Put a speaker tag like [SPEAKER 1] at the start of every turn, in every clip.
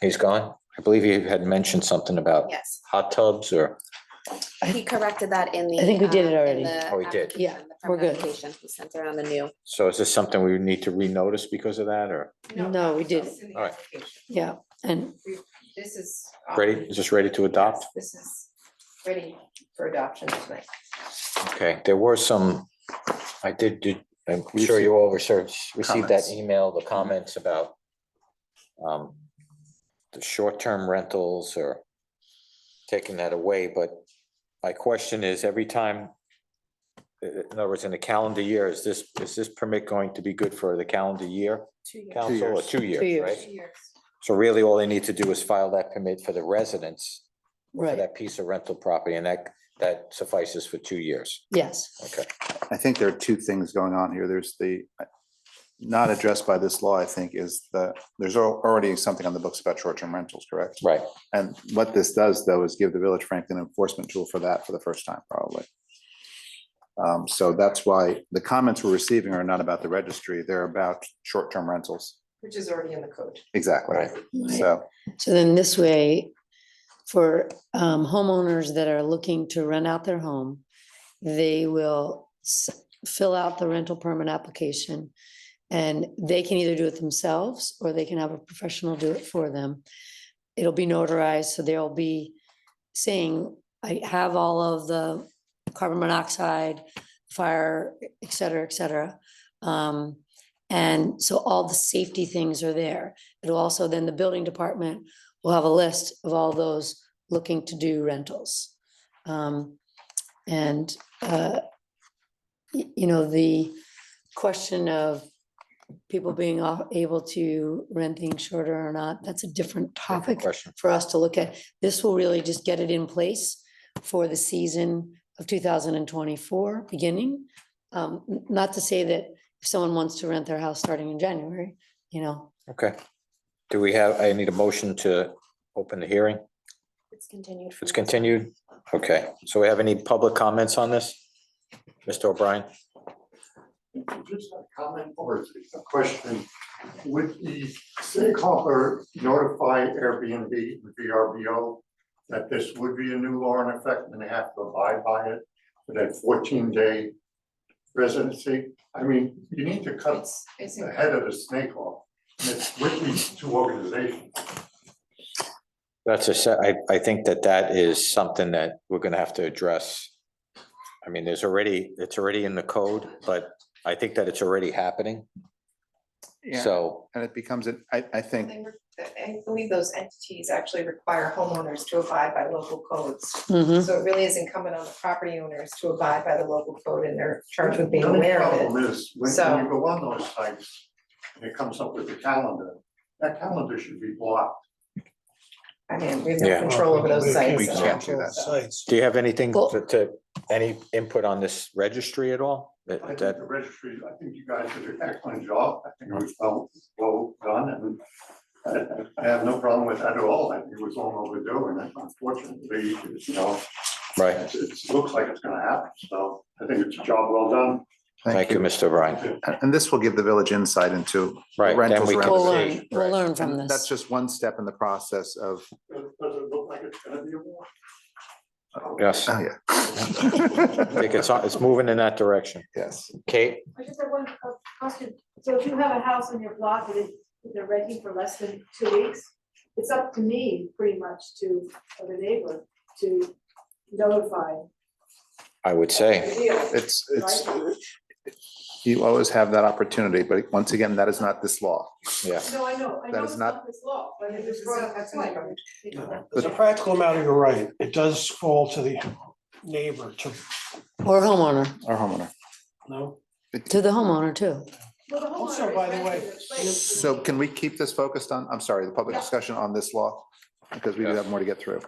[SPEAKER 1] He's gone? I believe you had mentioned something about
[SPEAKER 2] Yes,
[SPEAKER 1] hot tubs or,
[SPEAKER 2] he corrected that in the.
[SPEAKER 3] I think we did it
[SPEAKER 2] um, in
[SPEAKER 3] already.
[SPEAKER 2] the
[SPEAKER 1] Oh, we did.
[SPEAKER 2] application,
[SPEAKER 3] Yeah,
[SPEAKER 2] the
[SPEAKER 3] we're good.
[SPEAKER 2] application. He sent around the new.
[SPEAKER 1] so is this something we need to renotice because of that or?
[SPEAKER 3] No, we did.
[SPEAKER 4] It's in the
[SPEAKER 1] All right.
[SPEAKER 4] application.
[SPEAKER 3] Yeah, and
[SPEAKER 4] This is.
[SPEAKER 1] Ready, is this ready to adopt?
[SPEAKER 4] This is ready for adoption tonight.
[SPEAKER 1] Okay, there were some, I did, did, I'm sure you all received, received that
[SPEAKER 5] Comments.
[SPEAKER 1] email, the comments about um, the short-term rentals or taking that away, but my question is, every time, i- i- in other words, in the calendar year, is this, is this permit going to be good for the calendar year?
[SPEAKER 4] Two
[SPEAKER 1] Council, or two years,
[SPEAKER 3] years.
[SPEAKER 1] right? So really, all they need to do is file that permit for the residents for
[SPEAKER 3] right,
[SPEAKER 1] that piece of rental property, and that, that suffices for two years.
[SPEAKER 3] yes,
[SPEAKER 1] Okay.
[SPEAKER 5] I think there are two things going on here. There's the, uh, not addressed by this law, I think, is that there's al- already something on the books about short-term rentals, correct?
[SPEAKER 1] Right.
[SPEAKER 5] And what this does, though, is give the Village Franklin enforcement tool for that for the first time, probably. Um, So that's why the comments we're receiving are not about the registry, they're about short-term rentals.
[SPEAKER 4] Which is already in the code.
[SPEAKER 5] Exactly.
[SPEAKER 1] Right.
[SPEAKER 3] right.
[SPEAKER 5] So,
[SPEAKER 3] So then this way, for um, homeowners that are looking to rent out their home, they will s- fill out the rental permit application. And they can either do it themselves or they can have a professional do it for them. It'll be notarized, so they'll be saying, I have all of the carbon monoxide, fire, et cetera, et cetera. Um, And so all the safety things are there. It'll also, then the building department will have a list of all those looking to do rentals. Um, And, uh, y- you know, the question of people being off- able to rent things shorter or not, that's a different topic
[SPEAKER 1] Question.
[SPEAKER 3] for us to look at. This will really just get it in place for the season of two thousand and twenty-four beginning. Um, n- not to say that if someone wants to rent their house starting in January, you know,
[SPEAKER 1] Okay. Do we have, I need a motion to open the hearing?
[SPEAKER 2] It's continued.
[SPEAKER 1] It's
[SPEAKER 2] from-
[SPEAKER 1] continued? Okay, so we have any public comments on this? Mr. O'Brien?
[SPEAKER 6] Just a comment or a question. Would the city comptroller notify Airbnb and VRBO that this would be a new law in effect and they have to abide by it for that fourteen day residency? I mean, you need to cut
[SPEAKER 4] It's, it's,
[SPEAKER 6] the
[SPEAKER 4] in-
[SPEAKER 6] head of the snake off. And it's with these two organizations.
[SPEAKER 1] That's a se- I I think that that is something that we're gonna have to address. I mean, there's already, it's already in the code, but I think that it's already happening.
[SPEAKER 5] yeah,
[SPEAKER 1] So,
[SPEAKER 5] and it becomes, a- I, I think,
[SPEAKER 4] they were- I believe those entities actually require homeowners to abide by local codes.
[SPEAKER 7] Mm-hmm.
[SPEAKER 3] mhm,
[SPEAKER 4] So it really is incumbent on the property owners to abide by the local code and they're charged with being
[SPEAKER 6] The only
[SPEAKER 4] aware of it.
[SPEAKER 6] Problem is, when
[SPEAKER 4] So-
[SPEAKER 6] when you go on those sites, it comes up with the calendar. That calendar should be blocked.
[SPEAKER 4] I mean, we have
[SPEAKER 1] Yeah.
[SPEAKER 4] no control over those sites.
[SPEAKER 5] We
[SPEAKER 4] so-
[SPEAKER 5] can't do that.
[SPEAKER 8] Sites.
[SPEAKER 1] do you have anything
[SPEAKER 3] Well-
[SPEAKER 1] to, to- any input on this registry at all? That-
[SPEAKER 6] I think
[SPEAKER 1] that-
[SPEAKER 6] the registry, I think you guys did an excellent job. I think it was well, well done and I, I have no problem with that at all. I think it was long overdue and unfortunately, you know,
[SPEAKER 1] Right,
[SPEAKER 6] it's- it's- it looks like it's gonna happen. So I think it's a job well done.
[SPEAKER 1] thank you, Mr. O'Brien.
[SPEAKER 5] And and this will give the village insight into.
[SPEAKER 1] Right, then
[SPEAKER 5] Rentals
[SPEAKER 1] we
[SPEAKER 3] we'll
[SPEAKER 1] can
[SPEAKER 5] renovation.
[SPEAKER 1] see.
[SPEAKER 3] learn, we'll
[SPEAKER 1] right.
[SPEAKER 3] learn from
[SPEAKER 5] and Mm-hmm. That's
[SPEAKER 3] this.
[SPEAKER 5] just one step in the process of,
[SPEAKER 6] Does does it look like it's gonna be a war?
[SPEAKER 1] Yes, I
[SPEAKER 5] oh, yeah.
[SPEAKER 1] think it's, it's moving in that direction.
[SPEAKER 5] Yes.
[SPEAKER 1] Kate?
[SPEAKER 7] I just have one uh, question. So if you have a house on your block that is, that they're renting for less than two weeks, it's up to me pretty much to, or the neighbor, to notify.
[SPEAKER 1] I would say.
[SPEAKER 7] you,
[SPEAKER 5] It's, it's,
[SPEAKER 7] right?
[SPEAKER 5] you always have that opportunity, but once again, that is not this law.
[SPEAKER 7] No, I know, I
[SPEAKER 5] That
[SPEAKER 7] know
[SPEAKER 5] is
[SPEAKER 7] it's
[SPEAKER 5] not-
[SPEAKER 7] not this law, but it
[SPEAKER 4] This
[SPEAKER 7] was
[SPEAKER 4] is-
[SPEAKER 7] brought up
[SPEAKER 4] that's
[SPEAKER 7] at
[SPEAKER 4] an
[SPEAKER 7] point.
[SPEAKER 4] issue.
[SPEAKER 8] As a practical matter, you're right. It does fall to the neighbor to,
[SPEAKER 3] Or homeowner,
[SPEAKER 5] Our homeowner.
[SPEAKER 8] no?
[SPEAKER 3] to the homeowner too.
[SPEAKER 7] Well, the
[SPEAKER 8] Also,
[SPEAKER 7] homeowner is
[SPEAKER 8] by the way,
[SPEAKER 7] renting the place.
[SPEAKER 5] So can we keep this focused on, I'm sorry, the public
[SPEAKER 7] Yeah.
[SPEAKER 5] discussion on this law? Because we do have more to get through.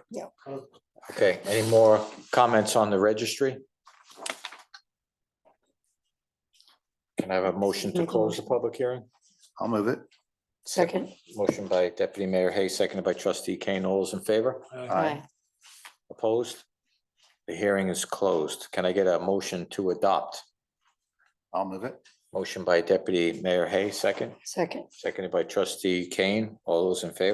[SPEAKER 1] Okay, any more comments on the registry? Can I have a motion to
[SPEAKER 3] Make a
[SPEAKER 1] close the public hearing?
[SPEAKER 5] I'll move it.
[SPEAKER 3] Second,
[SPEAKER 1] Motion by Deputy Mayor Hayes, seconded by Trustee Kane. All those in favor?
[SPEAKER 8] Uh,
[SPEAKER 3] aye,
[SPEAKER 5] Aye.
[SPEAKER 1] Opposed? The hearing is closed. Can I get a motion to adopt?
[SPEAKER 5] I'll move it.
[SPEAKER 1] Motion by Deputy Mayor Hay, second,
[SPEAKER 3] second.
[SPEAKER 1] seconded by Trustee Kane. All those in favor?